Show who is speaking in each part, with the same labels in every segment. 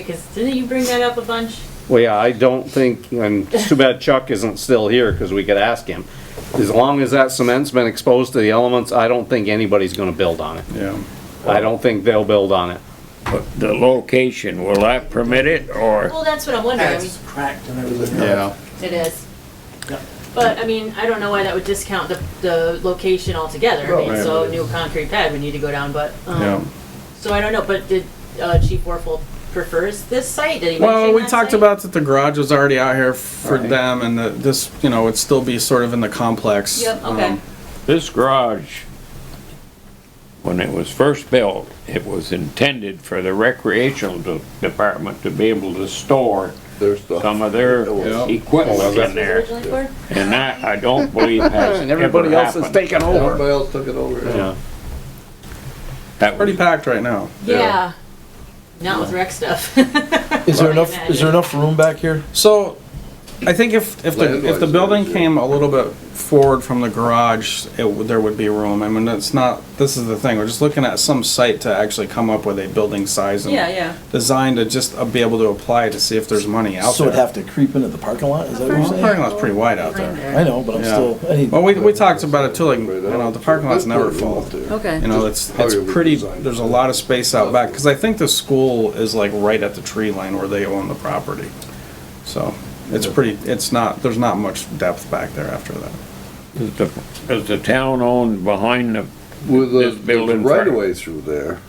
Speaker 1: Because didn't you bring that up a bunch?
Speaker 2: Well, yeah, I don't think, and it's too bad Chuck isn't still here, because we could ask him. As long as that cement's been exposed to the elements, I don't think anybody's gonna build on it.
Speaker 3: Yeah,
Speaker 2: I don't think they'll build on it.
Speaker 4: But the location, will that permit it or?
Speaker 1: Well, that's what I'm wondering. I mean,
Speaker 5: It's cracked and everything.
Speaker 3: yeah,
Speaker 1: It is.
Speaker 5: Yep.
Speaker 1: But, I mean, I don't know why that would discount the, the location altogether. I mean,
Speaker 3: Right.
Speaker 1: so new concrete pad would need to go down, but,
Speaker 3: yeah.
Speaker 1: um, so I don't know, but did, uh, Chief Warfel prefers this site? Did he
Speaker 6: Well,
Speaker 1: mention
Speaker 6: we
Speaker 1: that
Speaker 6: talked
Speaker 1: site?
Speaker 6: about that the garage was already out here for
Speaker 3: Right.
Speaker 6: them and that this, you know, would still be sort of in the complex.
Speaker 1: Yep, okay.
Speaker 6: um,
Speaker 4: This garage, when it was first built, it was intended for the recreational de- department to be able to store
Speaker 3: There's the,
Speaker 4: some of their
Speaker 3: Yeah.
Speaker 1: This
Speaker 4: equipment
Speaker 1: Oh, was
Speaker 4: in there.
Speaker 1: originally for?
Speaker 4: And that, I don't believe has
Speaker 2: And everybody
Speaker 4: ever
Speaker 2: else is
Speaker 4: happened.
Speaker 2: taking over.
Speaker 3: everybody else took it over.
Speaker 2: Yeah.
Speaker 4: That
Speaker 6: Pretty
Speaker 4: was-
Speaker 6: packed right now.
Speaker 1: Yeah. Not with rec stuff.
Speaker 5: Is there enough, is there enough room back here?
Speaker 6: So I think if, if the, if the
Speaker 3: Landlord's
Speaker 6: building
Speaker 3: there, too.
Speaker 6: came a little bit forward from the garage, it, would- there would be room. I mean, it's not, this is the thing, we're just looking at some site to actually come up with a building size
Speaker 1: Yeah,
Speaker 6: and
Speaker 1: yeah.
Speaker 6: design to just uh, be able to apply to see if there's money out
Speaker 5: So it'd
Speaker 6: there.
Speaker 5: have to creep into the parking lot, is that what
Speaker 6: Well,
Speaker 5: you're
Speaker 6: The
Speaker 5: saying?
Speaker 6: parking lot's pretty wide out there.
Speaker 5: I know, but I'm
Speaker 6: Yeah.
Speaker 5: still, I need.
Speaker 6: Well, we, we talked about it too, like, you know, the parking lot's never full.
Speaker 1: Okay.
Speaker 6: You know, it's,
Speaker 3: How
Speaker 6: it's
Speaker 3: do we
Speaker 6: pretty,
Speaker 3: design
Speaker 6: there's a lot of space out back, because I think the school is like right at the tree line where they own the property. So it's pretty, it's not, there's not much depth back there after that.
Speaker 4: Is the, is the town owned behind the,
Speaker 3: With
Speaker 4: This
Speaker 3: the,
Speaker 4: building
Speaker 3: there's right away through there,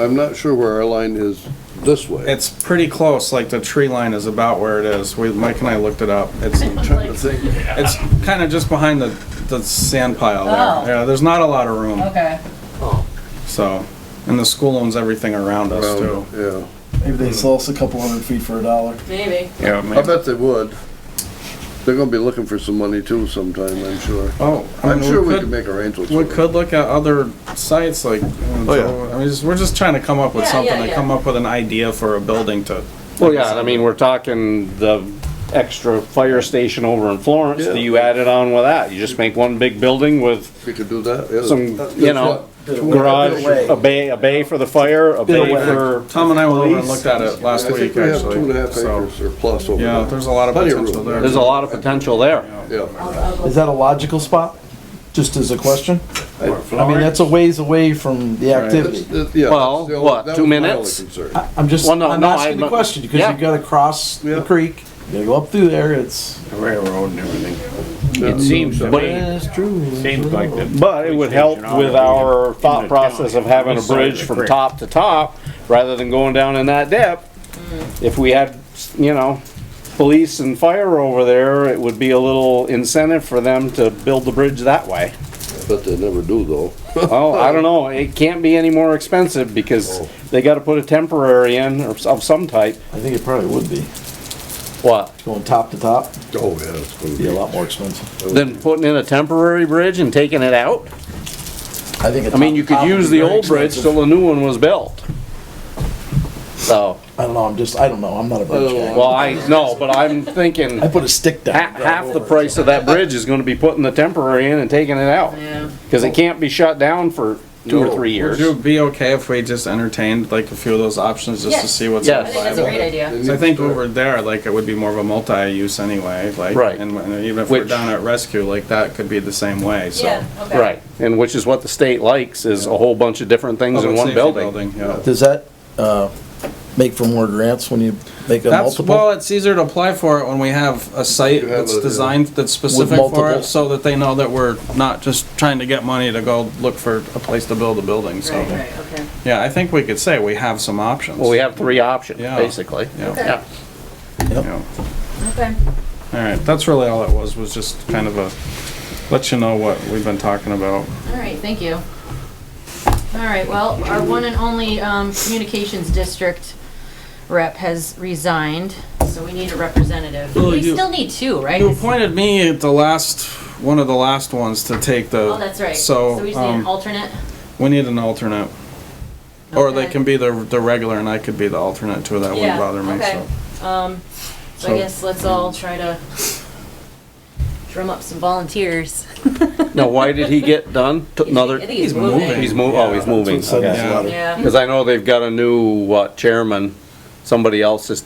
Speaker 3: I'm not sure where our line is this way.
Speaker 6: It's pretty close, like the tree line is about where it is. We, Mike and I looked it up. It's,
Speaker 3: Trying to think,
Speaker 6: it's kind of just behind the, the sand pile
Speaker 1: Oh.
Speaker 6: there. Yeah, there's not a lot of room,
Speaker 1: Okay.
Speaker 6: Oh. so, and the school owns everything around us too.
Speaker 3: um, yeah,
Speaker 5: Maybe they sell us a couple hundred feet for a dollar.
Speaker 1: Maybe.
Speaker 4: yeah, I
Speaker 3: I
Speaker 4: mean,
Speaker 3: bet they would. They're gonna be looking for some money too sometime, I'm sure.
Speaker 6: Oh, I
Speaker 3: I'm
Speaker 6: mean,
Speaker 3: sure we
Speaker 6: could-
Speaker 3: could make arrangements.
Speaker 6: We
Speaker 3: for it.
Speaker 6: could look at other sites like,
Speaker 2: Oh,
Speaker 6: I mean, just- we're just trying to come up with
Speaker 1: Yeah,
Speaker 6: something,
Speaker 1: yeah,
Speaker 6: to
Speaker 1: yeah.
Speaker 6: come up with an idea for a building to,
Speaker 2: Well, yeah, I mean, we're talking the extra fire station over in Florence,
Speaker 3: Yeah.
Speaker 2: that you added on with that. You just make one big building with
Speaker 3: We could do that, yeah.
Speaker 2: some,
Speaker 3: That's
Speaker 2: you know,
Speaker 3: what-
Speaker 2: garage, a bay, a bay for the fire, a bay
Speaker 6: way.
Speaker 2: for,
Speaker 6: Tom and I went over and
Speaker 2: Police.
Speaker 6: looked at it
Speaker 3: I
Speaker 6: last
Speaker 3: think
Speaker 6: week,
Speaker 3: we have two and a half
Speaker 6: actually, so.
Speaker 3: acres or plus over there.
Speaker 6: Yeah, there's a lot of
Speaker 3: Plenty of
Speaker 6: potential
Speaker 3: room.
Speaker 6: there.
Speaker 2: there's a lot of potential there.
Speaker 3: Yeah,
Speaker 5: Is that a logical spot? Just as a question? I mean, that's a ways away from the
Speaker 3: That's-
Speaker 5: activity.
Speaker 3: that- yeah,
Speaker 2: Well,
Speaker 3: that's the only-
Speaker 2: what,
Speaker 3: that
Speaker 2: two
Speaker 3: was my only
Speaker 2: minutes?
Speaker 3: concern.
Speaker 5: I- I'm just,
Speaker 2: Well, no,
Speaker 5: I'm
Speaker 2: no,
Speaker 5: asking
Speaker 2: I'm-
Speaker 5: the question, because
Speaker 2: yeah.
Speaker 5: you gotta cross
Speaker 3: Yeah.
Speaker 5: the creek, you gotta go up through there, it's.
Speaker 4: the railroad and everything. It seems to
Speaker 2: But-
Speaker 4: me,
Speaker 5: true.
Speaker 4: seems like the.
Speaker 2: But it would help
Speaker 4: police station ought to
Speaker 2: with
Speaker 4: be
Speaker 2: our
Speaker 4: in the
Speaker 2: thought
Speaker 4: town,
Speaker 2: process of having a
Speaker 4: east side of
Speaker 2: bridge
Speaker 4: the
Speaker 2: from
Speaker 4: creek.
Speaker 2: top to top, rather than going down in that depth. If we had, you know, police and fire over there, it would be a little incentive for them to build the bridge that way.
Speaker 3: But they never do though.
Speaker 2: Oh, I don't know, it can't be any more expensive,
Speaker 4: Oh.
Speaker 2: because they gotta put a temporary in or s- of some type.
Speaker 5: I think it probably would be.
Speaker 2: What?
Speaker 5: Going top to top,
Speaker 3: Oh, yeah, it's gonna
Speaker 5: be
Speaker 3: be.
Speaker 5: a lot more expensive.
Speaker 2: Then putting in a temporary bridge and taking it out?
Speaker 5: I think. a
Speaker 2: I mean, you
Speaker 5: top
Speaker 2: could
Speaker 5: to top would
Speaker 2: use
Speaker 5: be
Speaker 2: the
Speaker 5: very
Speaker 2: old bridge
Speaker 5: expensive.
Speaker 2: till the new one was built. So,
Speaker 5: I don't know, I'm just, I don't know, I'm not a bridge guy.
Speaker 2: well, I, no, but I'm thinking.
Speaker 5: Oh, I put a stick down.
Speaker 2: Half,
Speaker 5: and drive
Speaker 2: half the
Speaker 5: over it.
Speaker 2: price of that bridge is gonna be putting the temporary in and taking it out,
Speaker 1: Yeah.
Speaker 2: cause it can't be shut down for two or three
Speaker 6: Would you
Speaker 2: years.
Speaker 6: be okay if we just entertained like a few of those options just to
Speaker 1: Yes.
Speaker 6: see what's
Speaker 2: Yes.
Speaker 1: I think that's a
Speaker 6: viable?
Speaker 1: great idea.
Speaker 6: So I think over there, like, it would be more of a multi-use anyway, like,
Speaker 2: Right.
Speaker 6: and and even if we're
Speaker 2: Which-
Speaker 6: down at rescue, like, that could be the same way, so.
Speaker 1: Yeah, okay.
Speaker 2: Right, and which is what the state likes, is a whole bunch of different things in
Speaker 6: Public
Speaker 2: one
Speaker 6: safety
Speaker 2: building.
Speaker 6: yeah.
Speaker 5: Does that, uh, make for more grants when you make a
Speaker 6: That's,
Speaker 5: multiple?
Speaker 6: well, it's easier to apply for it when we have a site
Speaker 3: You have a-
Speaker 6: that's designed, that's specific for
Speaker 5: multiple.
Speaker 6: it, so that they know that we're not just trying to get money to go look for a place to build a building,
Speaker 1: Right,
Speaker 6: so.
Speaker 1: right, okay.
Speaker 6: Yeah, I think we could say we have some options.
Speaker 2: Well, we have three options,
Speaker 6: Yeah.
Speaker 2: basically.
Speaker 6: Yeah,
Speaker 2: Yeah,
Speaker 6: yeah.
Speaker 1: Okay.
Speaker 6: All right, that's really all it was, was just kind of a, let you know what we've been talking about.
Speaker 1: All right, thank you. All right, well, our one and only um, communications district rep has resigned, so we need a representative.
Speaker 6: Well,
Speaker 1: We
Speaker 6: Oh, you-
Speaker 1: still need two, right?
Speaker 6: You appointed me at the last, one of the last ones to take the.
Speaker 1: Oh, that's right.
Speaker 6: So,
Speaker 1: we just need an
Speaker 6: um,
Speaker 1: alternate?
Speaker 6: we need an alternate, or they
Speaker 1: Okay.
Speaker 6: can be the, the regular and I could be the alternate too, that
Speaker 1: Yeah,
Speaker 6: wouldn't bother me,
Speaker 1: okay.
Speaker 6: so.
Speaker 1: Um, so I
Speaker 6: So-
Speaker 1: guess let's all try to drum up some volunteers.
Speaker 2: now why did he get done? Took Another,
Speaker 1: I think
Speaker 2: he's
Speaker 1: he's
Speaker 6: moving.
Speaker 1: moving.
Speaker 2: mov, oh, he's moving,
Speaker 5: That's what it
Speaker 2: okay.
Speaker 5: said in this
Speaker 6: Yeah.
Speaker 5: letter.
Speaker 1: Yeah.
Speaker 2: Cause I know they've got a new, what, chairman somebody else's